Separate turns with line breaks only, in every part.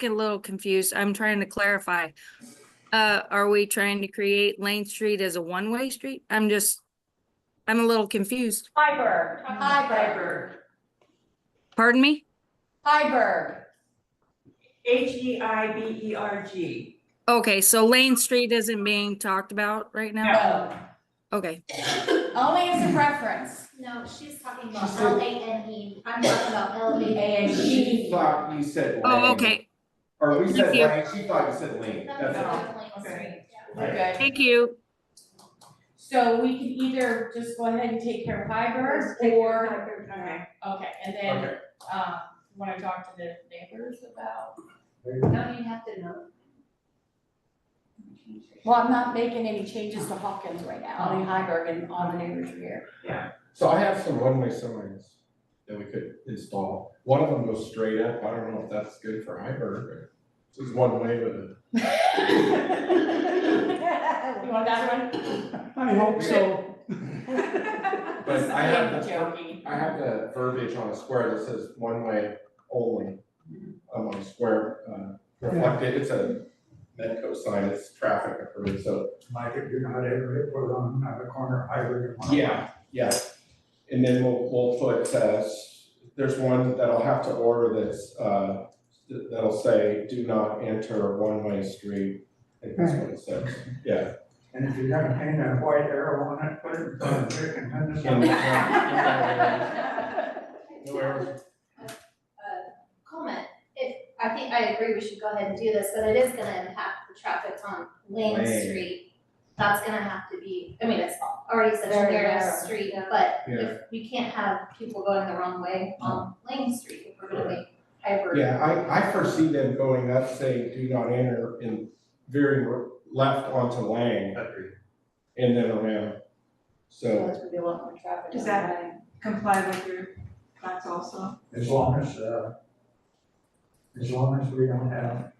get a little confused. I'm trying to clarify. Uh, are we trying to create Lane Street as a one-way street? I'm just, I'm a little confused.
Hyberg.
Hyberg.
Pardon me?
Hyberg.
H E I B E R G.
Okay, so Lane Street isn't being talked about right now?
No.
Okay,
Only as a preference.
No, she's talking
She
about
said-
L A N E, I'm talking about L A N
She
E.
thought you said lane.
oh, okay,
Or we said
Thank you.
lane, she thought you said lane,
That
that's
was
it.
definitely a
Okay.
street, yeah.
Right.
Okay.
thank you.
So we can either just go ahead and take care of Hyberg or,
Okay.
okay, and then,
Okay,
um, wanna talk to the neighbors about?
Don't you have to know?
Well, I'm not making any changes to Hawkins right now, only Hyberg and all the neighbors are here.
So I have some one-way signs that we could install. One of them goes straight up. I don't know if that's good for Hyberg or this is one way, but
You want that one?
I hope so.
This
But
is
I have,
me
the-
joking.
I have the verbiage on a square that says one way only. I'm on a square, uh, reflected, it's a Medco sign, it's traffic approved, so
Mike, if you're not able to put on the corner hybrid.
Yeah, yeah. And then we'll, we'll put, uh, there's one that I'll have to order that's, uh, that'll say, do not enter one-way street. I think that's what it says, yeah.
And if you're gonna paint that white arrow on it, put it in front of it and then the
And,
sun.
No errors.
Comment, if, I think I agree, we should go ahead and do this, but it is gonna impact the traffic on Lane
Lane.
Street. That's gonna have to be, I mean, it's already such a
Very
narrow
narrow,
street, but
Yeah.
if we can't have people going the wrong way on Lane Street, if we're gonna make hyper.
Yeah, I, I foresee them going up saying, do not enter and veering left onto Lang and then around. So,
There's gonna be a lot more traffic.
Does that- Comply with your thoughts also.
Mm-hmm.
As long as, uh, as long as we don't have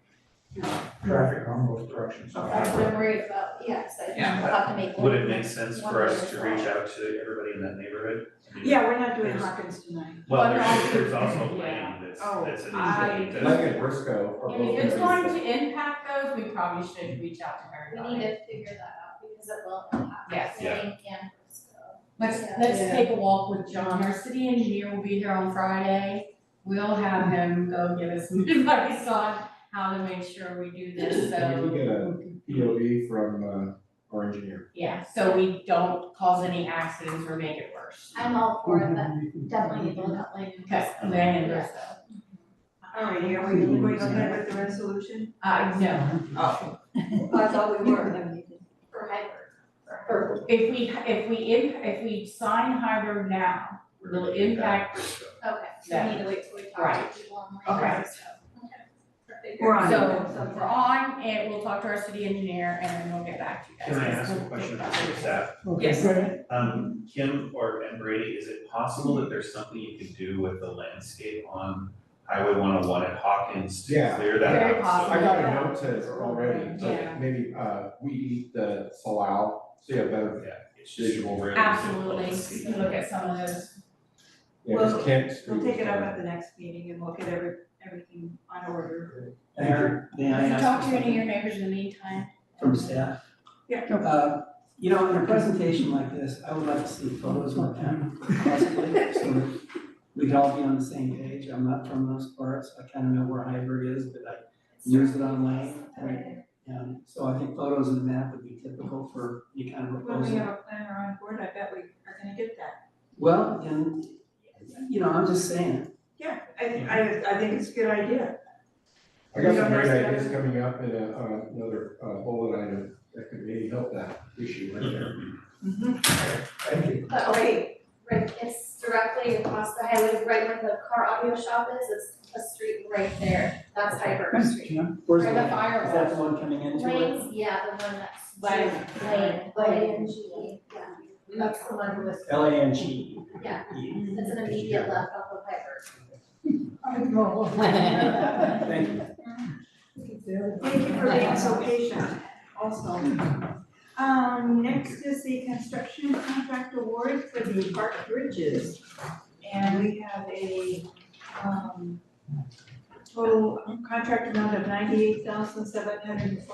traffic on both directions.
That's what I'm worried about, yes, I think we'll
Yeah.
have to make.
Would it
one-
make sense
one
for us
other
to reach
side.
out to everybody in that neighborhood? I mean,
Yeah, we're not doing Hawkins tonight.
Well,
Well,
there's, there's also
yeah.
land that's,
Oh,
that's an
I-
issue.
Lang and Briscoe are both.
And if it's
gonna be-
going to impact those, we probably should reach out to her.
We need to figure that out because it will impact.
Yes.
Yeah.
Lane and Frisco.
Let's,
Yeah.
let's
Yeah.
take a walk with John, our city engineer will be here on Friday. We'll have him go give us some advice on how to make sure we do this,
Can
so,
we get a POV from, uh, our engineer?
yeah, so we don't cause any accidents or make it worse.
I'm all for it, but definitely need to look up Lane and
Okay,
Frisco.
Land and Briscoe.
All right, are we going ahead with the resolution?
Uh, no,
Oh. I thought we were.
For hyper.
or if we, if we, im- if we sign Hyberg now, it'll impact Briscoe.
Okay, so we need to wait till we talk
Right.
to people on Lane
Okay.
and Frisco. Okay. Perfect.
We're on.
So we're on, and we'll talk to our city engineer, and then we'll get back to you guys.
Can I ask a question for staff?
Yes.
Um, Kim or and Brady, is it possible that there's something you could do with the landscape on Highway one oh one at Hawkins to
Yeah.
clear that
Very
out?
possible.
I got a note to already,
Yeah.
but maybe uh we eat the salal, so you have
So,
better,
yeah, it's visual awareness.
Absolutely, you can look at some of those.
you know,
Well,
just can't.
We'll take it up at the next meeting and we'll get every, everything on order.
Mayor, may I
Have you
ask
talked to any of
something
your neighbors in the meantime?
From staff?
Yeah.
Uh, you know, in a presentation like this, I would like to see photos with them, possibly, so that we could all be on the same page. I'm not from those parts, I kind of know where Hyberg is, but I use it on Lane. and- And so I think photos and a map would be typical for any kind of
When we
proposal.
have a planner on board, I bet we are gonna get that.
Well, and, you know, I'm just saying,
Yeah, I, I, I think it's a good idea.
I got some great ideas coming up in a on another uh bullet item that could maybe help that issue right there.
Thank you.
But right, right, it's directly across the highway, right where the car audio shop is, it's a street right there, that's Hyper Street.
you know, where's
Or
the,
the
is that the one coming into it?
Lanes, yeah, the one that's.
Lane.
Lane,
Lane.
Lane, yeah, that's the one with,
L A N G.
Yeah. it's an immediate left off of Hyper.
Thank you.
Thank you for being so patient also. Um, next is the construction contract award for the park bridges. And we have a, um, total contract amount of ninety-eight thousand seven hundred and forty